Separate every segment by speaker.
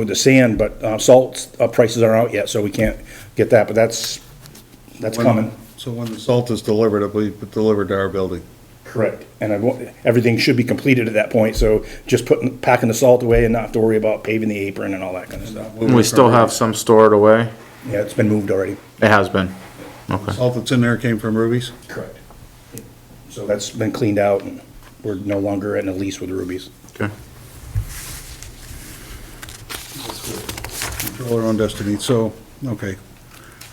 Speaker 1: with the sand, but uh, salt uh, prices aren't out yet, so we can't get that, but that's, that's
Speaker 2: When-
Speaker 1: coming.
Speaker 2: So when the salt is delivered, it will be delivered to our building.
Speaker 1: Correct. And I want, everything should be completed at that point, so just putting, packing the salt away and not have to worry about paving the apron and all that kind of stuff.
Speaker 3: We still have some stored away?
Speaker 1: Yeah, it's been moved already.
Speaker 3: It has been. Okay.
Speaker 2: Salt that's in there came from Ruby's?
Speaker 1: Correct. So that's been cleaned out, and we're no longer in a lease with Rubies.
Speaker 3: Okay.
Speaker 2: Control our own destiny, so, okay.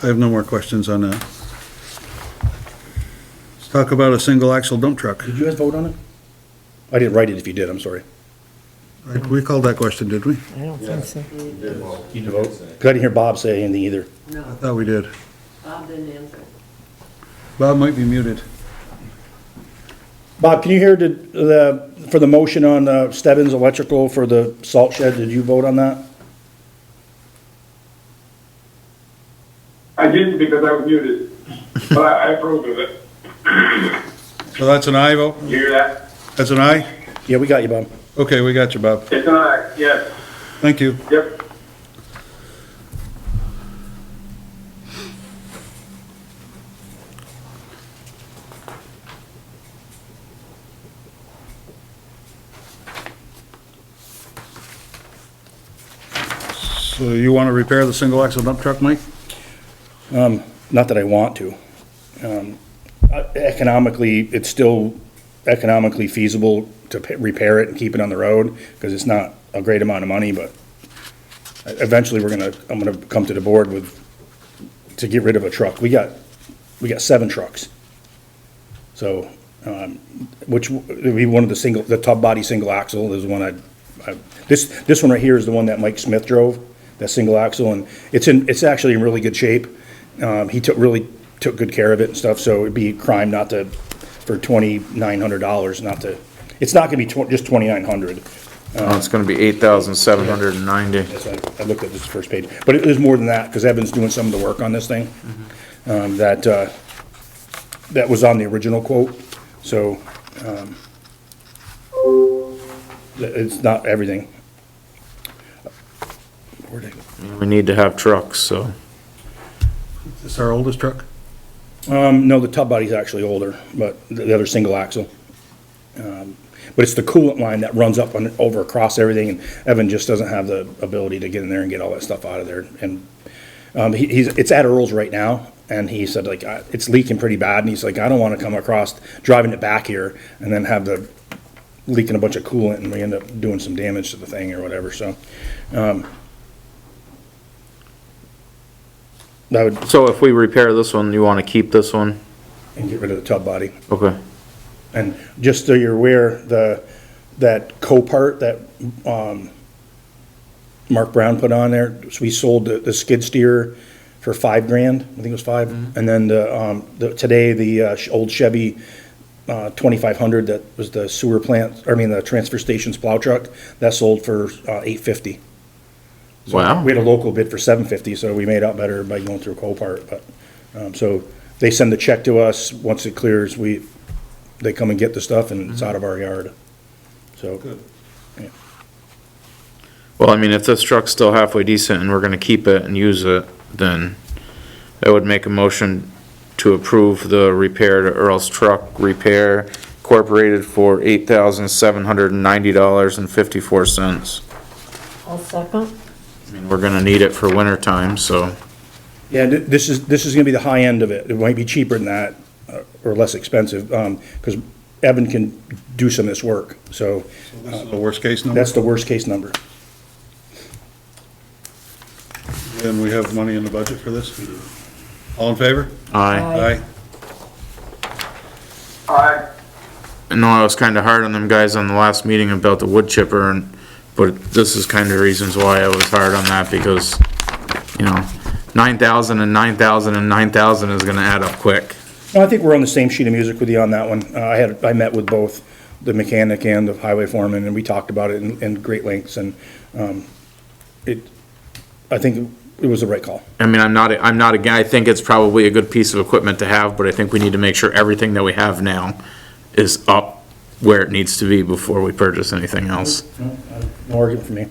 Speaker 2: I have no more questions on that. Let's talk about a single axle dump truck.
Speaker 1: Did you guys vote on it? I didn't write it if you did, I'm sorry.
Speaker 2: Right, We called that question, did we?
Speaker 4: I don't think so.
Speaker 1: You didn't vote? 'Cause I didn't hear Bob say anything either.
Speaker 2: I
Speaker 5: No,
Speaker 2: thought we did.
Speaker 5: Bob didn't answer.
Speaker 2: Bob might be muted.
Speaker 1: Bob, can you hear the, the, for the motion on uh, Stebbins Electrical for the salt shed, did you vote on that?
Speaker 6: I didn't because I was muted, but I I approve of it.
Speaker 2: So that's an aye vote?
Speaker 6: You hear that?
Speaker 2: That's an aye?
Speaker 1: Yeah, we got you, Bob.
Speaker 2: Okay, we got you, Bob.
Speaker 6: It's an aye, yes,
Speaker 2: Thank you.
Speaker 6: yep.
Speaker 2: So you want to repair the single axle dump truck, Mike?
Speaker 1: Not that I want to. Um, uh, Economically, it's still economically feasible to pa- repair it and keep it on the road, because it's not a great amount of money, but eventually, we're gonna, I'm gonna come to the board with, to get rid of a truck. We got, we got seven trucks. So, um, which, would be one of the single, the top body single axle is one I, I, this, this one right here is the one that Mike Smith drove, that single axle, and it's in, it's actually in really good shape. Um, he took, really took good care of it and stuff, so it'd be a crime not to, for twenty-nine hundred dollars, not to, it's not gonna be tw- just twenty-nine hundred.
Speaker 3: Well, it's gonna be eight thousand seven hundred and ninety.
Speaker 1: Yes, I, I looked at this first page, but it is more than that, because Evan's doing some of the work on this thing. Um, that, uh, that was on the original quote, so, um, th- it's not everything. Where'd I go?
Speaker 3: We need to have trucks, so.
Speaker 2: Is this our oldest truck?
Speaker 1: Um, no, the tub body's actually older, but the the other single axle. Um, But it's the coolant line that runs up on, over across everything, and Evan just doesn't have the ability to get in there and get all that stuff out of there. And, um, he, he's, it's at Earl's right now, and he said like, I- it's leaking pretty bad, and he's like, I don't wanna come across, driving it back here, and then have the, leaking a bunch of coolant, and we end up doing some damage to the thing or whatever, so. um, That would,
Speaker 3: So if we repair this one, you wanna keep this one?
Speaker 1: and get rid of the tub body.
Speaker 3: Okay.
Speaker 1: And just so you're aware, the, that Copart that, um, Mark Brown put on there, so we sold the, the skid steer for five grand, I think it was five. And then the, um, the, today, the, uh, sh- old Chevy, uh, twenty-five hundred that was the sewer plant, I mean, the transfer station's plow truck, that sold for, uh, eight fifty.
Speaker 3: Wow.
Speaker 1: We had a local bid for seven fifty, so we made out better by going through Copart, but, um, so they send the check to us, once it clears, we, they come and get the stuff and it's out of our yard, so.
Speaker 3: Well, I mean, if this truck's still halfway decent and we're gonna keep it and use it, then I would make a motion to approve the repair to Earl's Truck Repair Incorporated for eight thousand seven hundred and ninety dollars and fifty-four cents.
Speaker 5: I'll second.
Speaker 3: I mean, we're gonna need it for winter time, so.
Speaker 1: Yeah, thi- this is, this is gonna be the high end of it, it might be cheaper than that, uh, or less expensive, um, cause Evan can do some of this work, so
Speaker 2: This is Uh, the worst case number?
Speaker 1: that's the worst case number.
Speaker 2: And we have money in the budget for this? All in favor?
Speaker 3: Aye.
Speaker 2: Aye.
Speaker 6: Aye,
Speaker 3: I know I was kinda hard on them guys on the last meeting about the wood chipper and, but this is kinda reasons why I was hard on that because, you know, nine thousand and nine thousand and nine thousand is gonna add up quick.
Speaker 1: No, I think we're on the same sheet of music with you on that one. Uh, I had, I met with both the mechanic and the highway foreman, and we talked about it in, in great lengths, and, um, it, I think it was the right call.
Speaker 3: I mean, I'm not, I'm not, again, I think it's probably a good piece of equipment to have, but I think we need to make sure everything that we have now is up where it needs to be before we purchase anything else.
Speaker 1: No argument for me.